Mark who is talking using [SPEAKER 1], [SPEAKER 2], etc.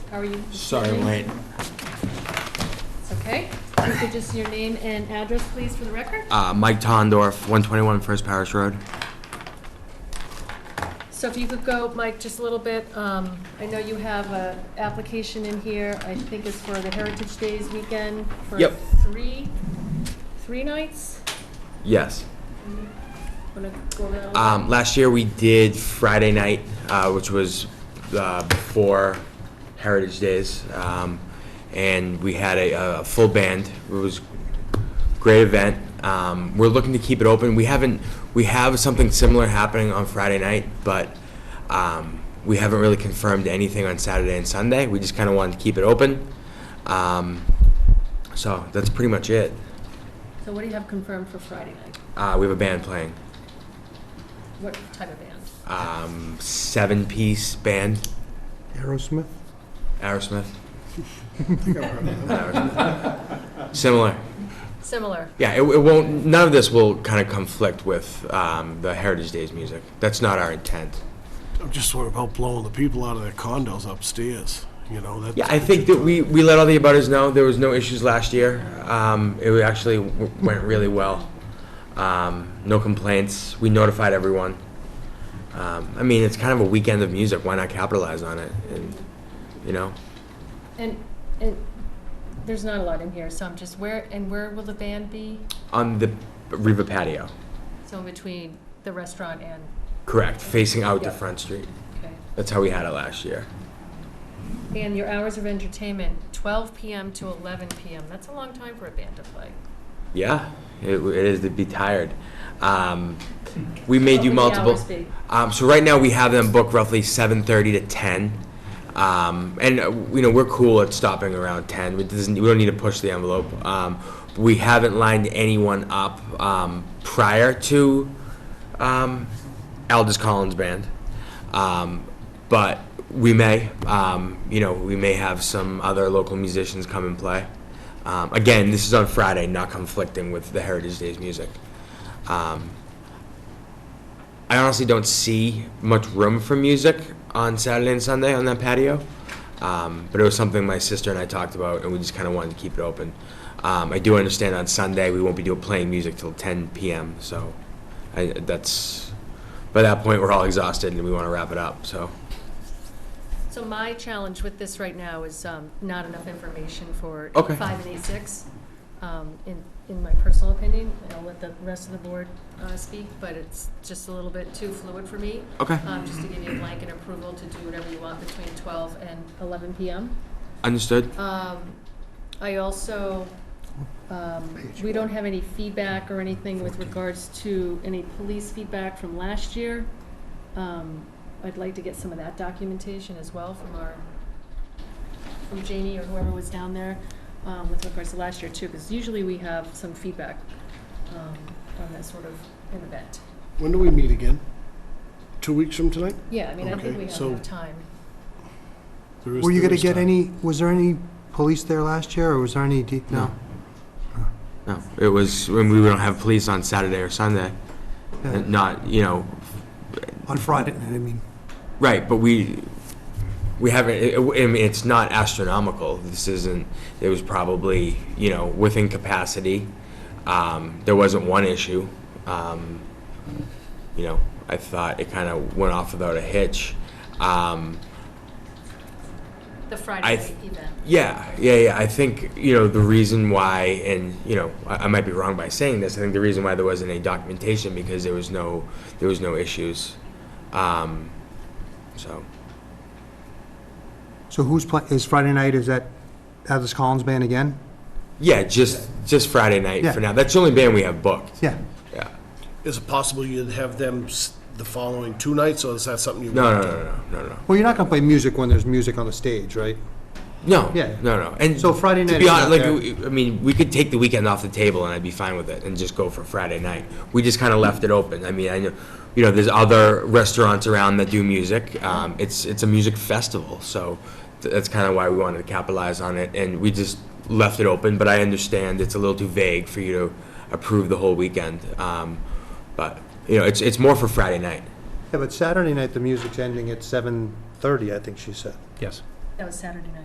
[SPEAKER 1] How are you?
[SPEAKER 2] Sorry, I'm late.
[SPEAKER 1] It's okay. If you could just your name and address, please, for the record.
[SPEAKER 2] Uh, Mike Tondorf, 121 First Parish Road.
[SPEAKER 1] So if you could go, Mike, just a little bit, um, I know you have a application in here, I think it's for the Heritage Days weekend for
[SPEAKER 2] Yep.
[SPEAKER 1] three, three nights?
[SPEAKER 2] Yes.
[SPEAKER 1] Wanna go around?
[SPEAKER 2] Um, last year we did Friday night, uh, which was uh, before Heritage Days, um, and we had a, a full band. It was a great event. Um, we're looking to keep it open. We haven't. We have something similar happening on Friday night, but um, we haven't really confirmed anything on Saturday and Sunday. We just kind of wanted to keep it open. Um, so that's pretty much it.
[SPEAKER 1] So what do you have confirmed for Friday night?
[SPEAKER 2] Uh, we have a band playing,
[SPEAKER 1] What type of band?
[SPEAKER 2] um, seven-piece band.
[SPEAKER 3] Aerosmith?
[SPEAKER 2] Aerosmith. Aerosmith. Similar.
[SPEAKER 1] Similar.
[SPEAKER 2] Yeah, it, it won't, none of this will kind of conflict with um, the Heritage Days music. That's not our intent.
[SPEAKER 4] I'm just worried about blowing the people out of their condos upstairs, you know, that's.
[SPEAKER 2] Yeah, I think that we, we let all the abutters know. There was no issues last year. Um, it actually w- went really well. Um, no complaints. We notified everyone. Um, I mean, it's kind of a weekend of music. Why not capitalize on it? And, you know,
[SPEAKER 1] And, and there's not a lot in here, so I'm just, where, and where will the band be?
[SPEAKER 2] on the Riva patio.
[SPEAKER 1] So in between the restaurant and,
[SPEAKER 2] Correct, facing out to
[SPEAKER 1] Yeah.
[SPEAKER 2] Front Street.
[SPEAKER 1] okay.
[SPEAKER 2] That's how we had it last year.
[SPEAKER 1] And your hours of entertainment, 12 PM to 11 PM. That's a long time for a band to play.
[SPEAKER 2] Yeah, it, it is to be tired. Um, we made you
[SPEAKER 1] What would the
[SPEAKER 2] multiple.
[SPEAKER 1] hours be?
[SPEAKER 2] Um, so right now we have them booked roughly seven thirty to ten, um, and uh, you know we're cool at stopping around ten. We, doesn't, we don't need to push the envelope. Um, we haven't lined anyone up um, prior to um, Aldous Collins Band, um, but we may. Um, you know we may have some other local musicians come and play. Um, again, this is on Friday, not conflicting with the Heritage Days music. Um, I honestly don't see much room for music on Saturday and Sunday on that patio. Um, but it was something my sister and I talked about, and we just kind of wanted to keep it open. Um, I do understand on Sunday we won't be doing playing music till 10 p.m. So I, that's by that point we're all exhausted and we want to wrap it up. So
[SPEAKER 1] So my challenge with this right now is um, not enough information for
[SPEAKER 2] Okay.
[SPEAKER 1] 5 and A6, um, in, in my personal opinion. I'll let the rest of the board uh, speak, but it's just a little bit too fluid for me.
[SPEAKER 2] Okay.
[SPEAKER 1] Um, Just to give you a blanket approval to do whatever you want between 12 and 11 PM.
[SPEAKER 2] understood.
[SPEAKER 1] Um, I also, um, we don't have any feedback or anything with regards to any police feedback from last year. Um, I'd like to get some of that documentation as well from our, from Janie or whoever was down there, um, with regards to last year too, because usually we have some feedback, um, on that sort of an event.
[SPEAKER 4] When do we meet again? Two weeks from tonight?
[SPEAKER 1] Yeah, I mean, I think
[SPEAKER 4] Okay,
[SPEAKER 1] we have
[SPEAKER 4] so-
[SPEAKER 1] enough time.
[SPEAKER 4] There is-
[SPEAKER 3] Were you
[SPEAKER 4] there
[SPEAKER 3] gonna
[SPEAKER 4] is
[SPEAKER 3] get
[SPEAKER 4] time.
[SPEAKER 3] any, was there any police there last year, or was there any, de- no?
[SPEAKER 2] No, it was when we don't have police on Saturday or Sunday.
[SPEAKER 3] Yeah.
[SPEAKER 2] and Not you know
[SPEAKER 3] On Friday, night, I mean,
[SPEAKER 2] Right, but we, we haven't, it- it- I mean, it's not astronomical. This isn't, it was probably, you know, within capacity. Um, There wasn't one issue. Um, You know, I thought it kind of went off without a hitch. Um,
[SPEAKER 1] The
[SPEAKER 2] I
[SPEAKER 1] Friday night
[SPEAKER 2] th-
[SPEAKER 1] event.
[SPEAKER 2] yeah, yeah, yeah. I think, you know, the reason why, and, you know, I, I might be wrong by saying this, I think the reason why there wasn't any documentation because there was no, there was no issues. Um, So.
[SPEAKER 3] so who's playing, is Friday night, is that Atlas Collins Band again?
[SPEAKER 2] Yeah, just just Friday night
[SPEAKER 3] Yeah.
[SPEAKER 2] for now. That's the only band we have booked.
[SPEAKER 3] Yeah,
[SPEAKER 2] Yeah.
[SPEAKER 4] Is it possible you'd have them s- the following two nights, or is that something you?
[SPEAKER 2] No, no, no, no, no, no.
[SPEAKER 3] well, you're not gonna play music when there's music on the stage, right?
[SPEAKER 2] No.
[SPEAKER 3] Yeah.
[SPEAKER 2] No, no. And
[SPEAKER 3] So Friday
[SPEAKER 2] To
[SPEAKER 3] night
[SPEAKER 2] be
[SPEAKER 3] is
[SPEAKER 2] honest,
[SPEAKER 3] not
[SPEAKER 2] like
[SPEAKER 3] there.
[SPEAKER 2] we- I mean, we could take the weekend off the table and I'd be fine with it and just go for Friday night. We just kind of left it open. I mean, I know, you know, there's other restaurants around that do music. Um, it's it's a music festival, so th- that's kind of why we wanted to capitalize on it. And we just left it open. But I understand it's a little too vague for you to approve the whole weekend. Um, but you know, it's it's more for Friday night.
[SPEAKER 3] Yeah, but Saturday night, the music's ending at seven-thirty, I think she said.
[SPEAKER 5] Yes.
[SPEAKER 1] That was Saturday night.